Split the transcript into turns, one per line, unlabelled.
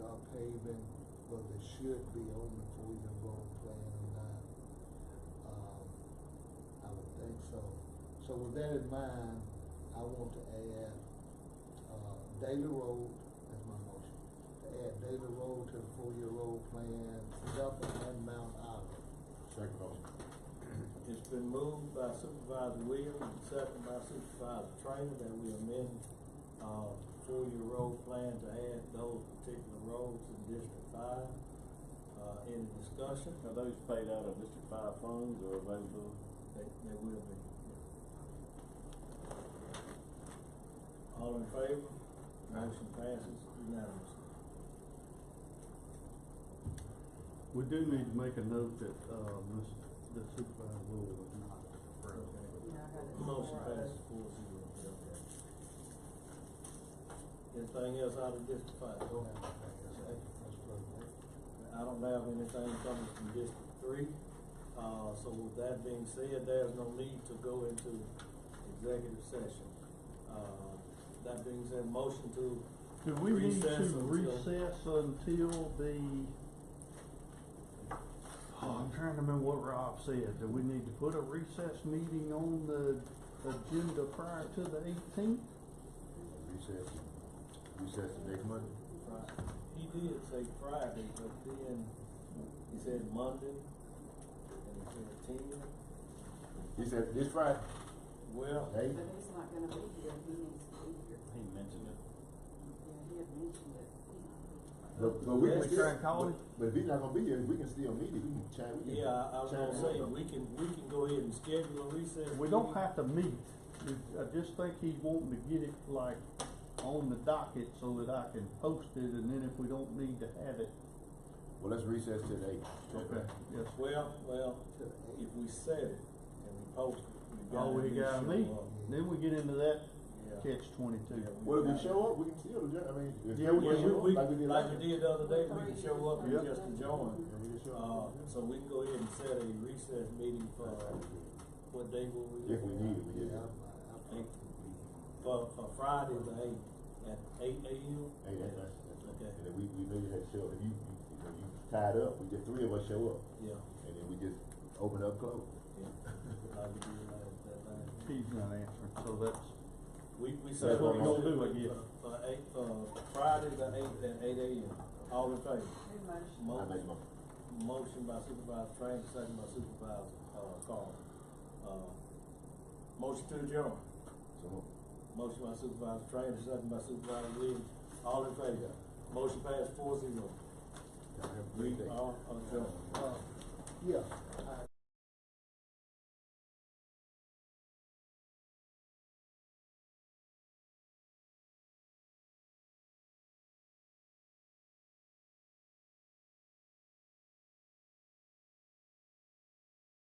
paving, whether it should be on the four-year road plan or not. Um, I would think so. So with that in mind, I want to add, uh, Daily Road, that's my motion, to add Daily Road to the four-year road plan, Duffin and Mount Olive.
Second motion.
It's been moved by Supervisor Williams and seconded by Supervisor Trainer that we amend, uh, four-year road plan to add those particular roads in District Five. Uh, any discussion?
Are those paid out of District Five funds or available?
They, they will be. All in favor? Motion passes unanimously.
We do need to make a note that, uh, Ms., that Supervisor Willie was not.
Okay.
Yeah, I got it.
Motion
Four
passes
oh.
four zero, okay. Anything else out of District Five?
Go ahead. That's perfect.
I don't have anything coming from District Three, uh, so with that being said, there's no need to go into executive session. Uh, that being said, motion to
Do we need to
Recess until-
recess until the, oh, I'm trying to remember what Rob said, do we need to put a recess meeting on the agenda prior to the eighteenth?
Recess, recess the next Monday?
Fri- he did say Friday, but then he said Monday, and he said Tuesday.
He said this Friday,
Well,
hey?
But he's not gonna be here, he needs to be here.
He mentioned it.
Yeah, he had mentioned it.
But, but we can
Let's
still.
try and call him.
But if he's not gonna be here, we can still meet it, we can chat, we can.
yeah, I I was
chat
gonna say,
with him.
we can, we can go ahead and schedule a recess.
We don't
meeting.
have to meet, It- I just think he's wanting to get it like on the docket so that I can post it, and then if we don't need to have it,
Well, let's recess today.
okay, yes, sir.
Well, well,
To the
if we said it and we posted, we got.
Oh, we gotta meet, then we get into that
Yeah.
catch twenty-two.
Well, if we show up, we can still adjourn, I mean, if.
Yeah, we
Yeah,
can show
we, we,
Like we did
like
last.
we did the other day, we can show up and
Yep.
just join.
Yeah, we can show
Uh,
up.
so we can go ahead and set a recess meeting for,
Uh,
what day will we?
If we need it, we
Yeah,
just,
I'm- I'm-
Eight. For, for Friday the eighth, at eight AM?
hey, that's, that's, that's,
Okay.
and then we, we know you had to show, up. if you, you, you know, you tied up, we just, three of us show up,
Yeah,
and then we just open up, close.
yeah, like we did last, that time.
He's not answering, so that's,
We, we said.
That's what we gonna
do, I guess.
For eight, uh, Friday the eighth at eight AM, all in favor?
Who motioned?
I
Mo-
make my,
Motion by Supervisor Train, second by Supervisor, uh, Carl. Uh, motion to adjourn.
so, move.
Motion by Supervisor Train, second by Supervisor Williams. All in favor? Motion passed four zero.
Y'all have a
We
uh,
great day.
are adjourned.
Uh, Yeah,